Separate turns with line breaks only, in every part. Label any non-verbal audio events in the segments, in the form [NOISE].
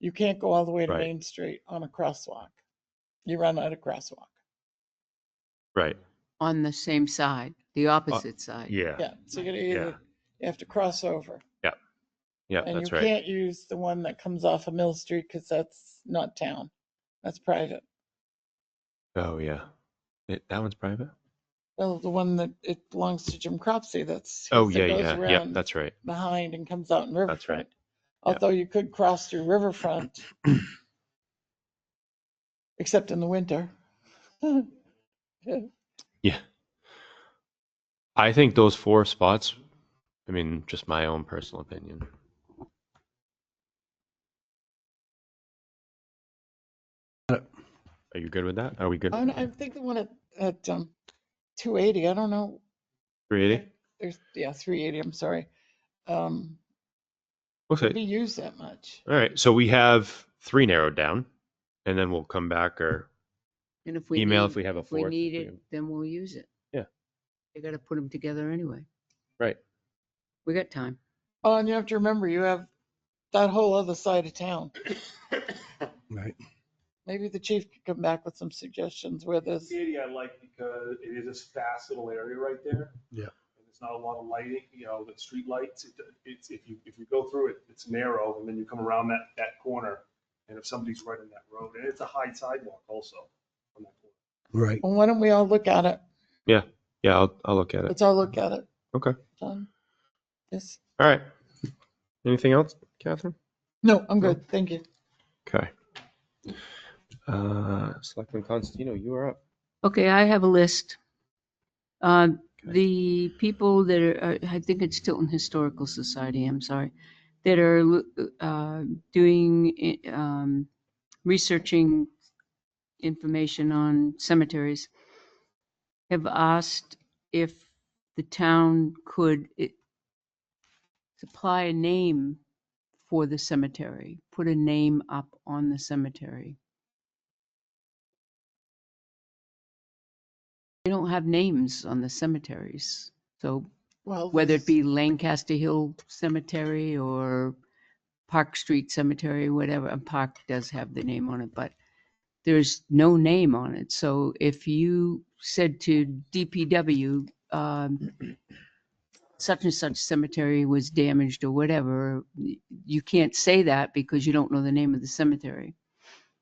You can't go all the way to
Right.
Main Street on a crosswalk. You run out of crosswalk.
Right,
on the same side, the opposite side.
Uh, yeah,
Yeah, so you gotta either, you have to cross over.
yeah,
And you
that's right.
can't use the one that comes off of Mill Street because that's not town. That's private.
Oh, yeah. It- That one's private?
Well, the one that it belongs to Jim Cropsey, that's. his
Oh,
that
yeah,
goes
yeah, yeah,
around
that's right.
Behind and comes out in
That's right.
Riverfront. Although you could cross through
[CLEARS THROAT]
Riverfront. Except in the winter. [LAUGHS]
Yeah. I think those four spots, I mean, just my own personal opinion. Are you good with that? Are we good?
I, don't- I think the one at, at, um, two eighty, I don't know,
Three eighty?
there's, yeah, three eighty, I'm sorry. Um,
Okay.
be used that much.
All right, so we have three narrowed down, and then we'll come back or
And if we
email
need-
if we have a
If we
fourth.
need it, then we'll use it.
Yeah.
You gotta put them together anyway.
Right.
We got time.
Oh, and you have to remember, you have that whole other side of town.
Right.
Maybe the chief could come back with some suggestions where there's,
City I like because it is a fast little area right there.
Yeah.
And There's not a lot of lighting, you know, the street lights, it, it's, if you, if you go through it, it's narrow and then you come around that, that corner. And if somebody's right in that road, and it's a high sidewalk also. on that corner.
Right.
well, why don't we all look at it?
Yeah, I'll, I'll look at it.
Let's all look at it.
Okay.
Done. Yes.
All right. Anything else, Catherine?
No, I'm good. Thank you.
Okay. Uh, Selectman Constantino, you are up.
Okay, I have a list. Uh,
Okay.
The people that are, I think it's Tilton Historical Society, I'm sorry, that are lo- uh, doing, um, researching information on cemeteries, have asked if the town could it- supply a name for the cemetery, put a name up on the cemetery. They don't have names on the cemeteries. So
Well.
whether it
this-
be Lancaster Hill Cemetery or Park Street Cemetery, whatever, and Park does have the name on it, but there's no name on it. So if you said to DPW, um, such and such cemetery was damaged or whatever, y- you can't say that because you don't know the name of the cemetery.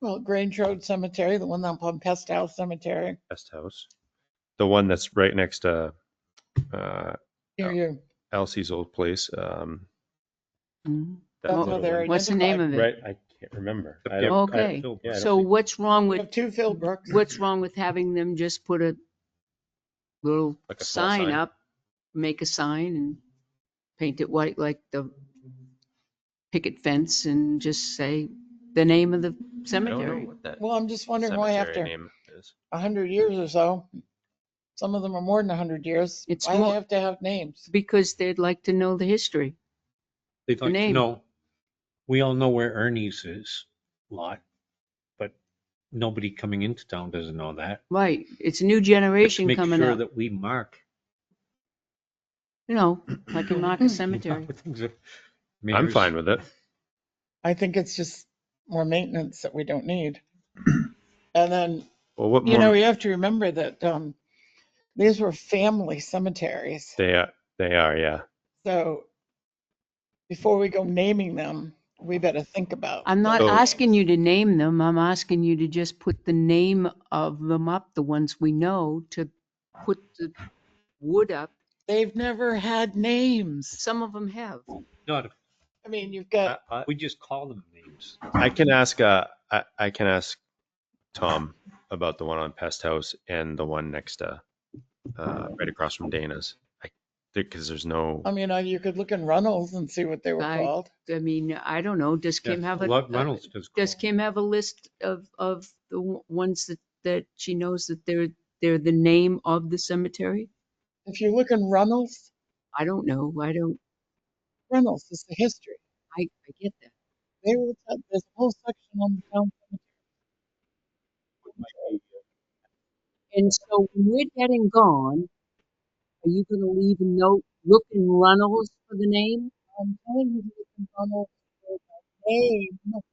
Well, Grange Road Cemetery, the one up on Pest House Cemetery,
Guest house. The one that's right next to, uh,
near you.
Elsie's old place, um.
Mhm.
that
That's
little
where they're
one.
What's the name of
Right,
it?
I can't remember. I don't- I-
Okay,
yeah, I don't
so
think-
what's wrong
We
with
have two Philbrooks.
what's wrong with having them just put a little
Like a small
sign
sign.
up, make a sign and paint it white like the picket fence and just say the name of the
I don't know
cemetery?
what that
Well, I'm just wondering why
cemetery
after
name is.
a hundred years or so, some of them are more than a hundred years.
It's
Why they
more-
have to have names?
Because they'd like to know the history.
They'd like to
name.
know, we all know where Ernie's is lot, but nobody coming into town doesn't know that.
Right, it's a new
Let's
generation
Make
coming
sure
up,
that we mark.
you know, like in Market
mark
Cemetery.
what [LAUGHS] things are-
I'm
Mayor's-
fine with it.
I think it's just more maintenance that we don't need. [CLEARS THROAT] And then,
Well, what
you know,
more,
you have to remember that, um, these were family cemeteries,
they are, they are, yeah.
so before we go naming them, we better think about.
I'm not
So-
asking you to name them, I'm asking you to just put the name of them up, the ones we know, to put the wood up.
They've never had names.
Some of them have.
Not, if-
I mean, you've got,
I-
we just call them names.
I can ask, uh, I, I can ask Tom about the one on Pest House and the one next to, uh, right across from Dana's. I think, cause there's no,
I mean, uh, you could look in Runnels and see what they were
I-
called.
I mean, I don't know, does Kim
Yeah,
have
a
a? uh,
lot- Reynolds does. call
Does
them.
Kim have a list of, of the w- ones that, that she knows that they're, they're the name of the cemetery?
If you look in Runnels,
I don't know, I don't,
Runnels is the history.
I, I get that.
They were, there's a whole section on the town. cemetery.
And so when we're getting gone, are you gonna leave a note, look in Runnels for the name?
I'm telling you, to look in Runnels, for the name